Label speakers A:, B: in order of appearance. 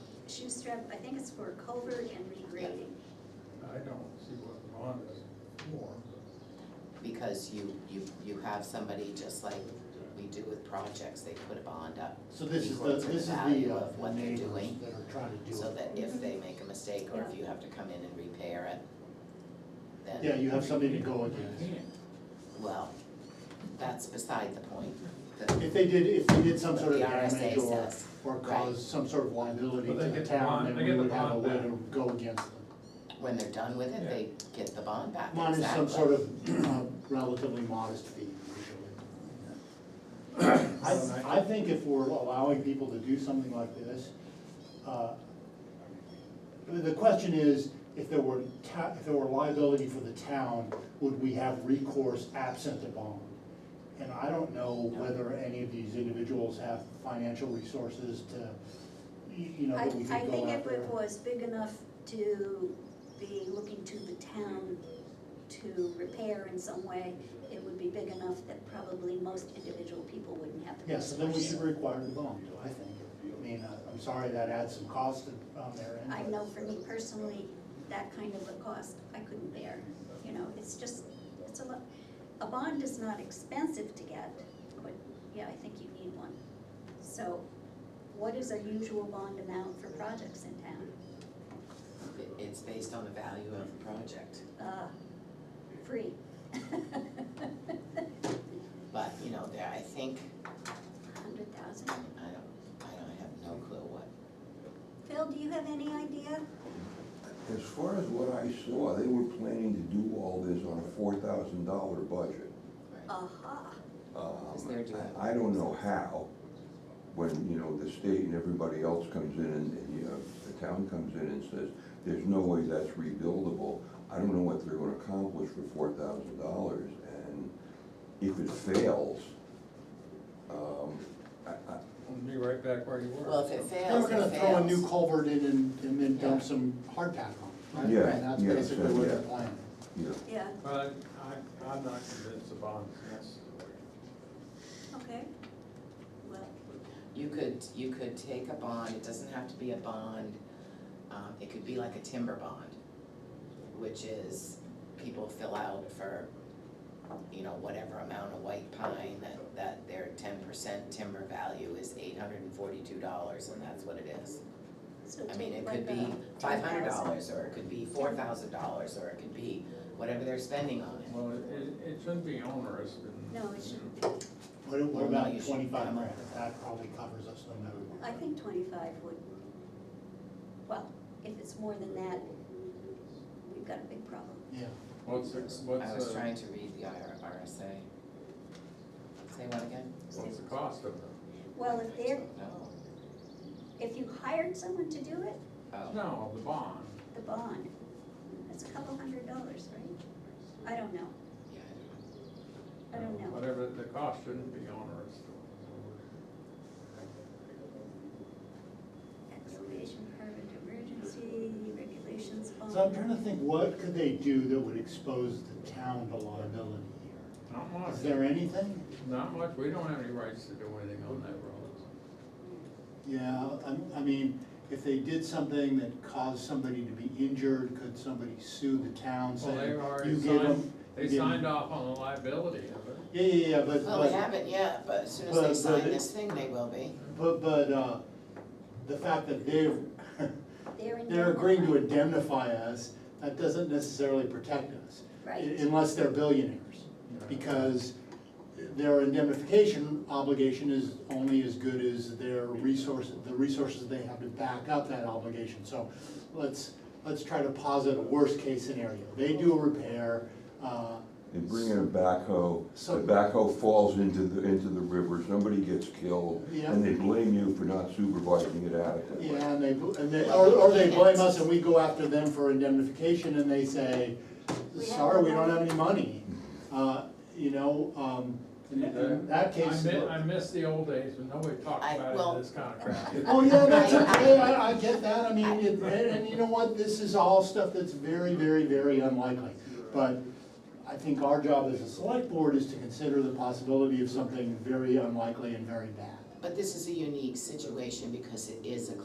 A: strip, I think it's for culvert and regrading.
B: I don't see what the bond is for.
C: because you, you, you have somebody just like we do with projects, they put a bond up.
D: So this is the,
C: equal to
D: this is
C: value
D: the, uh,
C: of what they're
D: neighbors
C: doing,
D: that are trying to do it.
C: So that if they make a mistake or if you have to come in and repair it,
D: Yeah,
C: then,
D: you have something to go against.
C: well, that's beside the point. The-
D: If they did, if they did some
C: But
D: sort of
C: the RSA
D: damage or,
C: says,
D: or
C: right.
D: caused some sort of liability to
B: But they
D: the
B: get the
D: town,
B: bond-
D: then
B: they
D: we
B: get the
D: would have a
B: bond
D: way
B: back.
D: to go against them.
C: When they're done with it, they get the bond back,
D: Mine is some
C: exactly.
D: sort of uh, relatively modest fee usually. I, I think if we're allowing people to do something like this, uh, the- the question is, if there were ta, if there were liability for the town, would we have recourse absent a bond? And I don't know whether any of these individuals have financial resources to, y- you know,
A: I,
D: that we could go
A: I
D: after.
A: think if it was big enough to be looking to the town to repair in some way, it would be big enough that probably most individual people wouldn't have the
D: Yeah, so then we
A: resources.
D: should require the bond, I think. I mean, I- I'm sorry that adds some cost to- on their end.
A: I
D: but-
A: know for me personally, that kind of a cost, I couldn't bear, you know, it's just, it's a lot. A bond is not expensive to get, but yeah, I think you need one. So what is our usual bond amount for projects in town?
C: It- It's based on the value of the project,
A: Uh, free.
C: but, you know, there, I think,
A: Hundred thousand.
C: I don't, I don't, I have no clue what
A: Phil, do you have any idea?
E: As far as what I saw, they were planning to do all this on a four thousand dollar budget.
A: Aha,
E: Um,
C: they're doing
E: I I don't know how, when, you know, the state and everybody else comes in and, and, you know, the town comes in and says, there's no way that's rebuildable. I don't know what they're gonna accomplish for four thousand dollars, and if it fails, um, I, I,
B: We'll be right back where you were.
C: Well, if it
D: They were
C: fails, it
D: gonna
C: fails.
D: throw a new culvert in and, and then dump
C: Yeah.
D: some hard pack on it. right?
E: Yeah,
D: And that's
E: yeah,
D: basically
E: so,
D: what they're
E: yeah.
D: planning.
E: you know,
A: yeah,
B: But I, I'm not convinced the bond is necessary.
A: okay. Well,
C: You could, you could take a bond, it doesn't have to be a bond, um, it could be like a timber bond, which is people fill out for, you know, whatever amount of white pine that, that their ten percent timber value is eight hundred and forty-two dollars, and that's what it is.
A: so
C: I mean,
A: take
C: it
A: like
C: could
A: a
C: be five hundred
A: 10,000.
C: dollars, or it could be four thousand dollars, or it could be whatever they're spending on it.
B: Well, it, it- it shouldn't be onerous and.
A: No, it shouldn't be.
D: What, what
C: Well, now
D: about
C: you should
D: twenty-five
C: come up
D: grand?
C: with
D: That probably covers us no matter what.
A: I think twenty-five would, well, if it's more than that, we've got a big problem.
D: Yeah,
B: What's, the-
C: I was
B: what's, uh, the-
C: trying to read the IR, RSA. Say what again?
B: what's the cost of it?
A: Well, if they're,
C: No,
A: if you hired someone to do it,
C: oh.
B: No, the bond.
A: the bond, that's a couple hundred dollars, right? I don't know,
C: Yeah, I
A: I
C: don't know.
A: don't know.
B: Whatever, the cost shouldn't be onerous.
A: Excavation permit, emergency regulations bond.
D: so I'm trying to think, what could they do that would expose the town to liability here?
B: Not
D: Is
B: much,
D: there anything?
B: not much, we don't have any rights to do anything on that road.
D: Yeah, I, I mean, if they did something that caused somebody to be injured, could somebody sue the town
B: Well, they
D: saying, you
B: already
D: gave
B: signed,
D: them?
B: they signed off on the liability of it.
D: Yeah, yeah, yeah, but,
C: Well, Oh, they
D: but
C: haven't yet, but as soon as
D: But-
C: they
D: but
C: sign
D: it-
C: this thing, they will be.
D: But, but, uh, the fact that they're,
A: They're in.
D: they're agreeing to indemnify us, that doesn't necessarily protect us.
A: Right.
D: un- Unless they're billionaires, because their indemnification obligation is only as good as their resources, the resources they have to back up that obligation. So let's, let's try to posit a worst-case scenario. They do a repair, uh,
E: They bring in a backhoe, the
D: So-
E: backhoe falls into the, into the river, somebody gets killed,
D: Yeah.
E: and they blame you for not supervising it adequately.
D: Yeah, and they, and they, or, or they blame us and we go after them for indemnification and they say,
A: We have
D: sorry,
A: no
D: we don't
A: money."
D: have any money. Uh, you know, um, in in that case.
B: I mi- I miss the old days when nobody talked
C: I- well-
B: about this kind of crap.
D: Oh, yeah, that's
C: I- I-
D: okay, I, I get that, I mean, it- and, and you know what, this is all stuff that's very, very, very unlikely. But I think our job as a select board is to consider the possibility of something very unlikely and very bad.
C: But this is a unique situation because it is a